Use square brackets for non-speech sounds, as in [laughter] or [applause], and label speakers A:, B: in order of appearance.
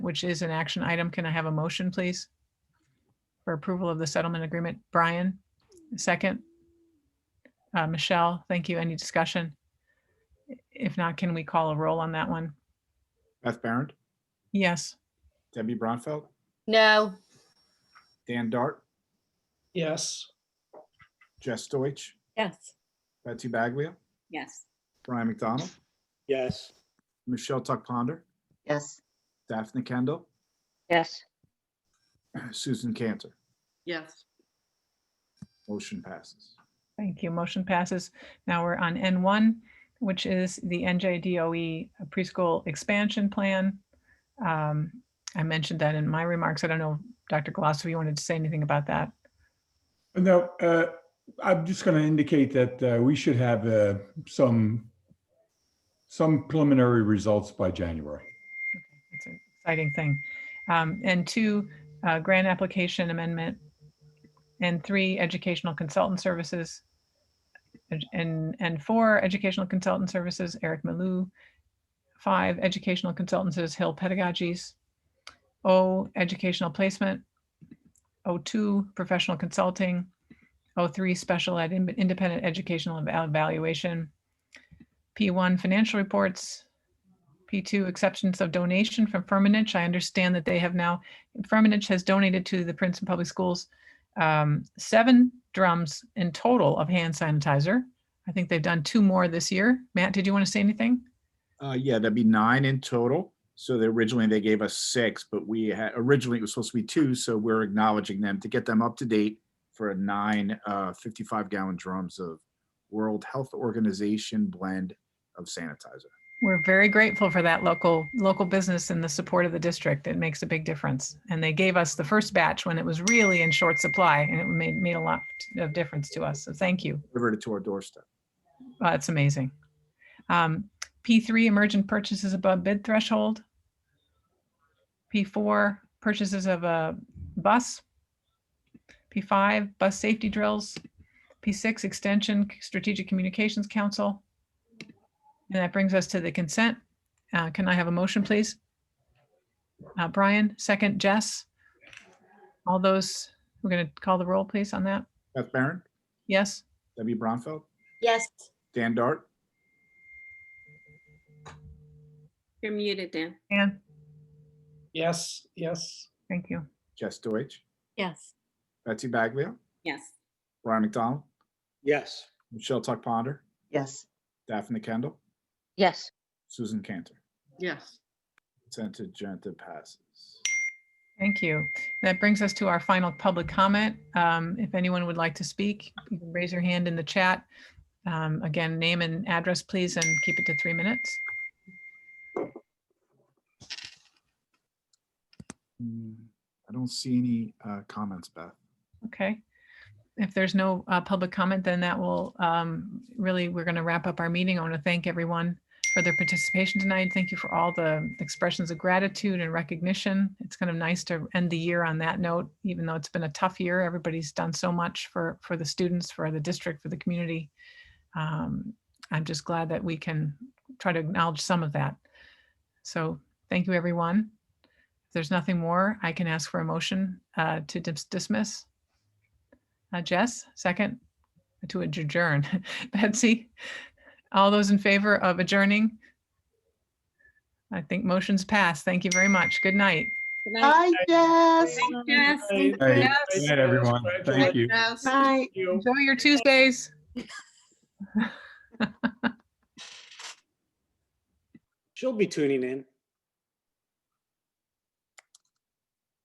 A: which is an action item. Can I have a motion, please? For approval of the settlement agreement. Brian, second. Uh, Michelle, thank you. Any discussion? If not, can we call a roll on that one?
B: Beth Baron,
A: Yes.
B: Debbie Bronfeld,
C: No,
B: Dan Dart,
D: yes,
B: Jess Deutsch,
E: yes,
B: Betsy Baglia,
E: yes,
B: Brian McDonald,
F: yes,
B: Michelle Tuck Ponder,
G: yes,
B: Daphne Kendall,
H: yes,
B: [clears throat] Susan Cantor.
I: yes,
B: Motion passes.
A: Thank you. Motion passes. Now we're on N1, which is the NJDOE E preschool expansion plan. Um, I mentioned that in my remarks. I don't know, Dr. Glass, if you wanted to say anything about that.
J: No, uh, I'm just going to indicate that uh, we should have uh, some, some preliminary results by January.
A: It's an exciting thing. Um, And two, uh, grant application amendment. And three, educational consultant services. And- And, and four, educational consultant services, Eric Malou. Five, educational consultants, Hill Pedagogies. O, educational placement. O two, professional consulting. O three, special ed, in- independent educational eval- evaluation. P one, financial reports. P2, acceptance of donation from Firmenich. I understand that they have now, Firmenich has donated to the Princeton Public Schools um, seven drums in total of hand sanitizer. I think they've done two more this year. Matt, did you want to say anything?
B: Uh, yeah, that'd be nine in total. So they originally, they gave us six, but we had, originally it was supposed to be two, so we're acknowledging them to get them up to date for a nine uh, 55 gallon drums of World Health Organization blend of sanitizer.
A: We're very grateful for that local, local business and the support of the district. It makes a big difference. And they gave us the first batch when it was really in short supply and it made, made a lot of difference to us. So thank you.
B: Delivered it to our doorstep.
A: Wow, Oh, That's amazing. Um, P3, emergent purchases above bid threshold. P4, purchases of a bus. P5, bus safety drills. P6, extension, strategic communications council. And that brings us to the consent. Uh, Can I have a motion, please? Uh, Brian, second. Jess? All those, we're going to call the roll, please, on that?
B: Beth Baron,
A: Yes?
B: Debbie Bronfeld,
C: yes,
B: Dan Dart,
I: you're muted, Dan.
A: Anne,
D: yes, yes,
A: thank you.
B: Jess Deutsch,
E: yes,
B: Betsy Baglia,
E: yes,
B: Brian McDonald,
F: yes,
B: Michelle Tuck Ponder,
G: yes,
B: Daphne Kendall,
H: yes.
B: Susan Cantor.
I: Yes,
B: Consent agenda passes.
A: Thank you. That brings us to our final public comment. Um, If anyone would like to speak, you can raise your hand in the chat. Um, Again, name and address, please, and keep it to three minutes.
B: Hmm, I don't see any uh, comments, Beth.
A: Okay. If there's no uh, public comment, then that will, um, really, we're going to wrap up our meeting. I want to thank everyone for their participation tonight. Thank you for all the expressions of gratitude and recognition. It's kind of nice to end the year on that note, even though it's been a tough year. Everybody's done so much for, for the students, for the district, for the community. Um, I'm just glad that we can try to acknowledge some of that. So thank you, everyone. If there's nothing more, I can ask for a motion uh, to dis- dismiss. Uh, Jess, second, to adjourn. [laughs] Betsy, all those in favor of adjourning? I think motion's passed. Thank you very much. Good night.
I: Good night.
G: I guess,
I: Thank you, Jess.
D: Hey,
I: Thank you,
J: hey,
I: Jess.
J: Good night, everyone. Thank you.
I: Jess.
G: right.
D: you.
A: Enjoy your Tuesdays.
F: she'll be tuning in.